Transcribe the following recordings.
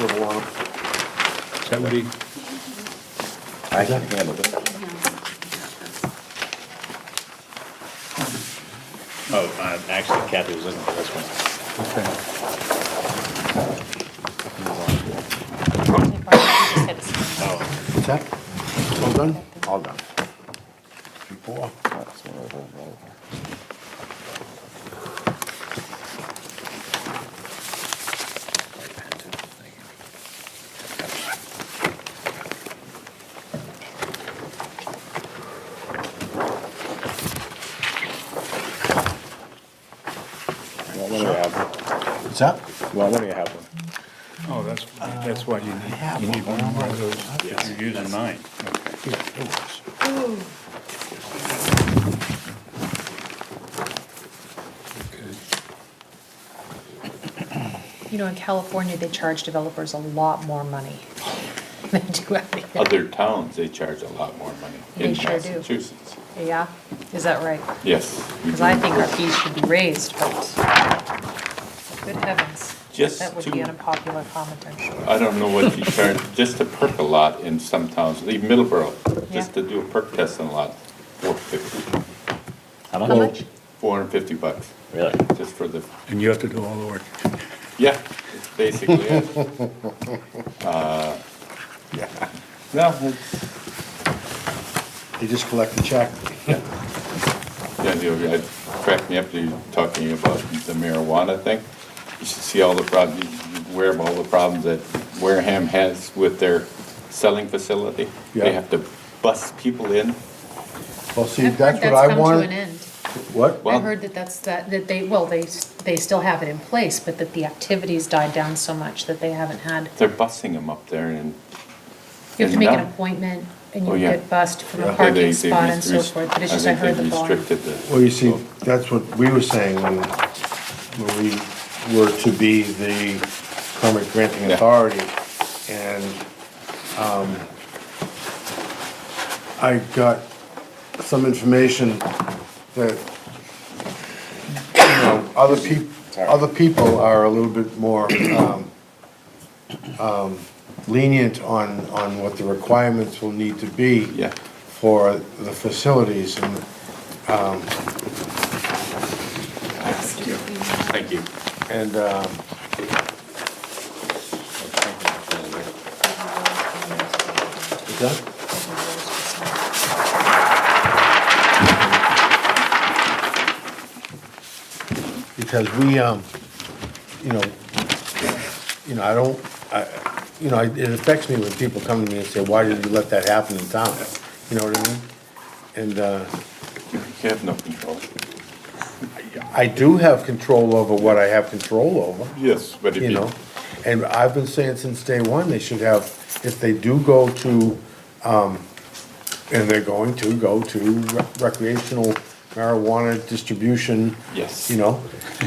little lump. Is that what he, I can handle it. Oh, uh, actually Kathy was looking for this one. Oh, What's that? All done? All done. Before. That's one over and over. Well, let me have, What's that? well, let me have one. oh, that's, that's what you need. You need one more of those, because you're using mine. Okay. You know, in California, they charge developers a lot more money than they do out here. other towns, they charge a lot more money They in sure do. Massachusetts. Yeah, is that right? Yes. we Because do. I think our fees should be raised, but good heavens. Just That would be to- an unpopular comment, I'm sure. I don't know what you charge, just to perk a lot in some towns, leave Middleborough, just Yeah. to do a perk test on a lot, four fifty. How much? Four hundred and fifty bucks, Really? just for the, And you have to do all the work. yeah, it's basically Uh, it. Yeah. No, it's, They just collect the check. yeah, you, it cracked me up, you talking about the marijuana thing. You should see all the problems, aware of all the problems that Wareham has with their selling facility. Yeah. They have to bus people in. Well, see, that's what I wanted. What? Well- I've heard that that's, that, that they, well, they, s- they still have it in place, but that the activities died down so much that they haven't had, They're busing them up there and you have to make an Yeah. appointment and Oh, you yeah. get bussed from Yeah. a They- they- parking they spot and so rest- forth, but it's just I think heard they the volume. Restricted the. Well, you see, that's what we were saying when, when we were to be the permit granting Yeah. authority. And, um, I got some information that, you know, other peop, other people are a little bit more, um, um, lenient on, on what the requirements will need to be Yeah. for the facilities and, Thank you. And, um, is that, because we, um, you know, you know, I don't, I, you know, it affects me when people come to me and say, why did you let that happen in town? You know what I mean? And, uh, You have no control. I do have control over what I have control over. Yes, but if you you, know? And I've been saying since day one, they should have, if they do go to, um, and they're going to go to recreational marijuana distribution. Yes. You know,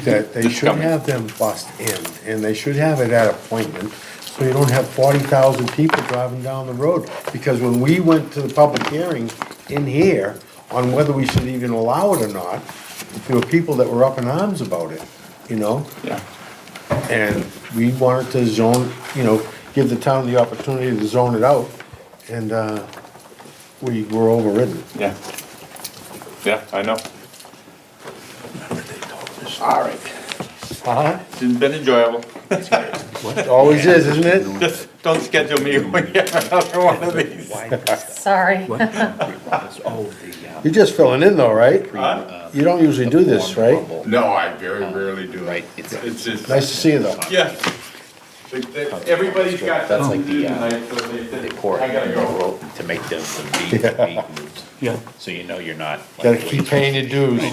that they It's should coming. have them bust in, and they should have it at appointment, so you don't have forty thousand people driving down the road. Because when we went to the public hearing in here on whether we should even allow it or not, there were people that were up in arms about it, you know? yeah, And we wanted to zone, you know, give the town the opportunity to zone it out, and, uh, we were overridden. yeah. Yeah, I know. All right. Uh-huh. It's been enjoyable. It always is, isn't it? Just don't schedule me when you have another one of these. Sorry. uh, You're just filling in though, right? You don't usually do this, right? No, I very rarely do it. It's Nice just, to see you though. yeah. They- they- Everybody's got That's something like to do the, uh, tonight, so they They said, pour I it gotta in the go. rope to make them some beef, beef moves. Yeah. So you know you're not. like, Gotta keep waiting. paying your dues.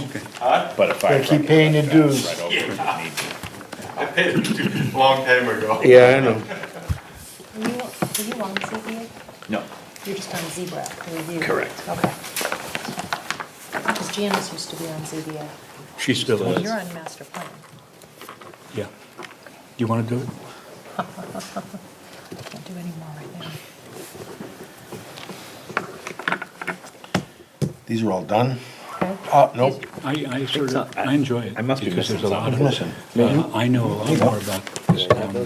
But a gotta fire keep truck is paying your like that, dues. right over if you need to. I paid it a long time ago. Yeah, I know. Were you, were you on ZBA? No, You're just on Zebra review? Correct. Okay. Because Janice used to be on ZBA. She still Well, is. you're on master plan. Yeah. You want to do it? I Can't do any more right now. These are all done? Okay? Oh, nope. I, I sort It's of, not- I- I enjoy it. I must be because missing there's a lot something. of- uh, I know a lot more about this town than